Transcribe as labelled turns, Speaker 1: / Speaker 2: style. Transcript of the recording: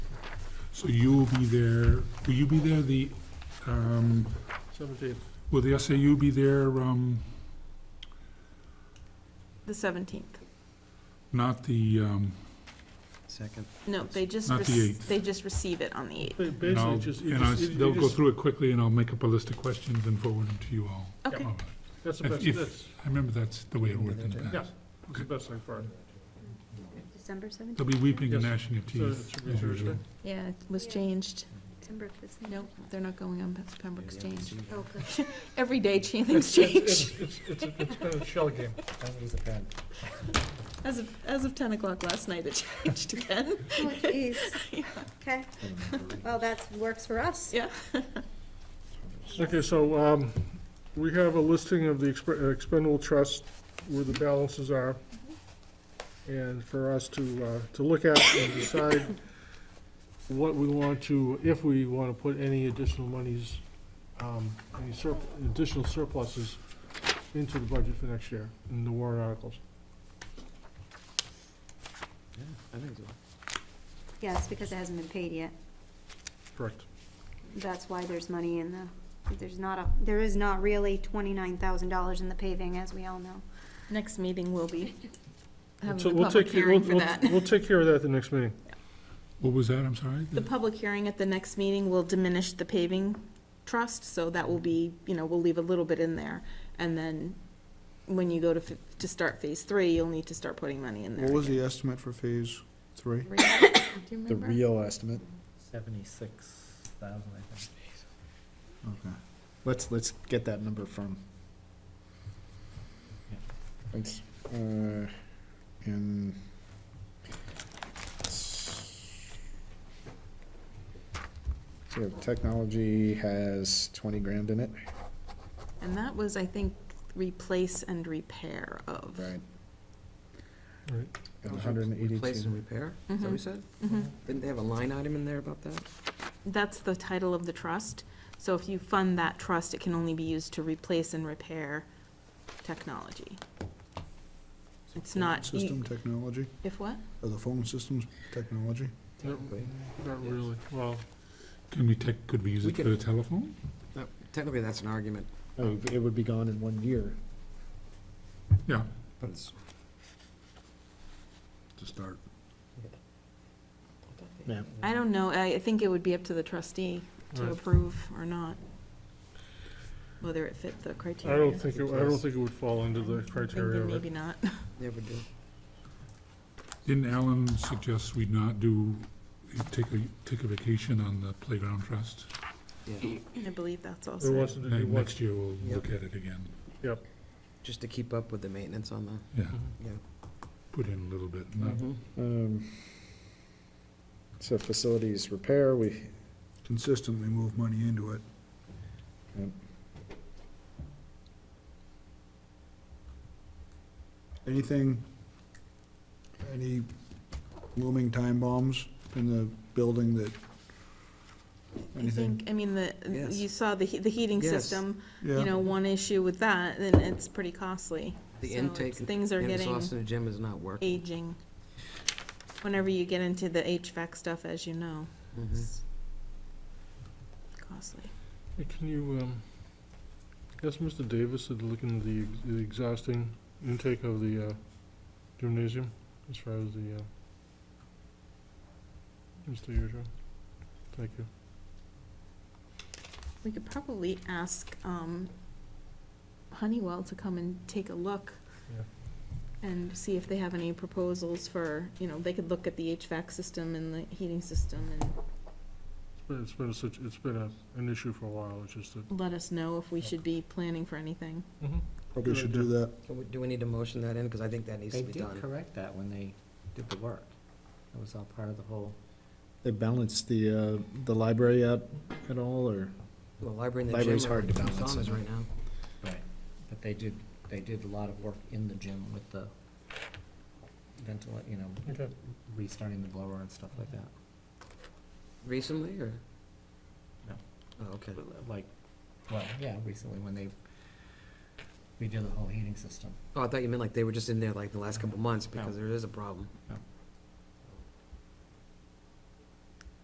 Speaker 1: So you will be there, will you be there the, um,
Speaker 2: Seventeenth.
Speaker 1: will the SAU be there, um,
Speaker 3: The 17th.
Speaker 1: not the, um,
Speaker 4: Second.
Speaker 3: No, they just,
Speaker 1: Not the
Speaker 3: rec-
Speaker 1: 8th.
Speaker 3: they just receive it on the 8th.
Speaker 1: and
Speaker 2: Basically,
Speaker 1: I'll,
Speaker 2: just, you
Speaker 1: and I'll,
Speaker 2: just, you-
Speaker 1: they'll
Speaker 2: you
Speaker 1: go
Speaker 2: just,
Speaker 1: through it quickly and I'll make up a list of questions and forward them to you all.
Speaker 3: Okay.
Speaker 1: All right.
Speaker 2: that's the
Speaker 1: if-
Speaker 2: best,
Speaker 1: if-
Speaker 2: that's,
Speaker 1: I remember that's the way it worked in the
Speaker 2: Yeah.
Speaker 1: past.
Speaker 2: that's the best thing for it.
Speaker 5: December 17th?
Speaker 1: They'll be weeping and
Speaker 2: Yes.
Speaker 1: gnashing of
Speaker 2: So
Speaker 1: teeth.
Speaker 2: it should be
Speaker 1: as
Speaker 2: Thursday?
Speaker 1: usual.
Speaker 3: Yeah, it was
Speaker 5: Yeah.
Speaker 3: changed.
Speaker 5: December fifteenth.
Speaker 3: No, they're not going on Pembroke
Speaker 4: Maybe I can
Speaker 3: Exchange.
Speaker 4: see that.
Speaker 5: Oh, good.
Speaker 3: Every day, cha-
Speaker 2: It's-
Speaker 3: things
Speaker 2: it's-
Speaker 3: change.
Speaker 2: It's, it's, it's been a shell game.
Speaker 4: Don't use the pen.
Speaker 3: As of, as of 10 o'clock last night, it changed again.
Speaker 5: Oh, jeez. Okay, well, that works for us.
Speaker 3: Yeah.
Speaker 2: Okay, so, um, we have a listing of the expe- uh, expendable trust, where the balances are, and for us to, uh, to look at and decide what we want to, if we want to put any additional monies, um, any surp, additional surpluses into the budget for next year, in the warrant articles.
Speaker 4: Yeah, I think so.
Speaker 5: Yes, because it hasn't been paid yet.
Speaker 2: Correct.
Speaker 5: That's why there's money in the, there's not a, there is not really twenty-nine thousand dollars in the paving, as we all know.
Speaker 3: Next meeting will be
Speaker 2: So
Speaker 3: having the
Speaker 2: we'll
Speaker 3: public
Speaker 2: take care- we'll-
Speaker 3: hearing for
Speaker 2: we'll-
Speaker 3: that.
Speaker 2: We'll take care of that at the next meeting.
Speaker 1: What was that, I'm sorry?
Speaker 3: The public hearing at the next meeting will diminish the paving trust, so that will be, you know, we'll leave a little bit in there. And then when you go to, f- to start phase three, you'll need to start putting money in there.
Speaker 6: What was
Speaker 3: again.
Speaker 6: the estimate for phase three?
Speaker 3: Do you
Speaker 7: The
Speaker 3: remember?
Speaker 7: real estimate.
Speaker 4: Seventy-six thousand, I think.
Speaker 7: Let's, let's get that number from. Thanks. Uh, and. So technology has twenty grand in it,
Speaker 3: And that was, I think, replace and repair of.
Speaker 7: right?
Speaker 2: Right.
Speaker 7: And hundred and
Speaker 4: Replace and
Speaker 7: eighty-two.
Speaker 4: repair, is that what you said?
Speaker 3: Mhm.
Speaker 4: Didn't they have a line item in there about that?
Speaker 3: That's the title of the trust. So if you fund that trust, it can only be used to replace and repair technology. It's not, you-
Speaker 6: System technology,
Speaker 3: if what?
Speaker 6: or the phone systems technology?
Speaker 2: Not
Speaker 4: Technically.
Speaker 2: not really, well,
Speaker 1: Can we take, could we use
Speaker 4: We
Speaker 1: it for
Speaker 4: could-
Speaker 1: the telephone?
Speaker 4: No, Technically, that's an argument,
Speaker 7: Oh, it would be gone in one year.
Speaker 1: Yeah,
Speaker 4: but it's.
Speaker 6: To start.
Speaker 7: Yeah.
Speaker 3: I don't know, I, I think it would be up to the trustee to
Speaker 2: Right.
Speaker 3: approve or not, whether it fit the
Speaker 2: I
Speaker 3: criteria.
Speaker 2: don't think, it- I don't think it would fall under the criteria
Speaker 3: Thinking
Speaker 2: of it.
Speaker 3: Maybe not.
Speaker 4: Never do.
Speaker 1: didn't Alan suggest we not do, take a, take a vacation on the playground trust?
Speaker 4: Yeah,
Speaker 3: I believe that's
Speaker 2: He
Speaker 3: also.
Speaker 2: wants to, do- he
Speaker 1: And
Speaker 2: wants
Speaker 1: next year we'll
Speaker 4: Yep.
Speaker 1: look at it again,
Speaker 4: just to keep up with the maintenance on the,
Speaker 1: yeah,
Speaker 2: Mm-hmm.
Speaker 4: yeah.
Speaker 1: put in a little bit, not
Speaker 4: Mhm.
Speaker 8: Mm-hmm.
Speaker 7: Um, so facilities repair, we,
Speaker 6: Consistently move money into it.
Speaker 7: Yep.
Speaker 6: Anything, any looming time bombs in the building that,
Speaker 3: I
Speaker 6: anything?
Speaker 3: think, I mean, the,
Speaker 4: Yes.
Speaker 3: you saw the, he- the heating
Speaker 4: Yes.
Speaker 3: system,
Speaker 6: Yeah.
Speaker 3: you know, one issue with that, then it's pretty costly.
Speaker 4: The
Speaker 3: So
Speaker 4: intake,
Speaker 3: it's- Things are
Speaker 4: and
Speaker 3: getting
Speaker 4: exhaust in the gym is not working.
Speaker 3: aging. Whenever you get into the HVAC stuff, as you know,
Speaker 4: Mhm.
Speaker 3: it's
Speaker 4: Mm.
Speaker 3: costly.
Speaker 2: Hey, Can you, um, ask Mr. Davis to look into the ex- the exhausting intake of the uh, gymnasium as far as the, uh, Mr. Yurcheck? Thank you.
Speaker 3: We could probably ask um, Honeywell to come and take a look and see if they have any proposals for, you know, they could look at the HVAC system and the heating system and
Speaker 2: It's been, it's been such, it's been a, an issue for a while, it's just that.
Speaker 3: let us know if we should be planning for anything.
Speaker 2: Mm-hmm.
Speaker 6: Probably should do that.
Speaker 4: Can we- Do we need to motion that in? Because I think that needs to be done.
Speaker 8: correct that when they did the work. That was all part of the whole.
Speaker 7: they balance the, uh, the library out at all, or?
Speaker 4: Well, library and the gym.
Speaker 7: Library's
Speaker 4: are
Speaker 7: hard to balance,
Speaker 4: saunas
Speaker 7: isn't it?
Speaker 4: right now.
Speaker 8: But they did, they did a lot of work in the gym with the ventil, you know,
Speaker 2: Okay.
Speaker 8: restarting the blower and stuff like that.
Speaker 4: Recently, or?
Speaker 8: No.
Speaker 4: Oh, okay.
Speaker 8: Like, well, yeah, recently when they redid the whole heating system.
Speaker 4: Oh, I thought you meant like they were just in there like the last couple months, because there is a problem.
Speaker 8: No.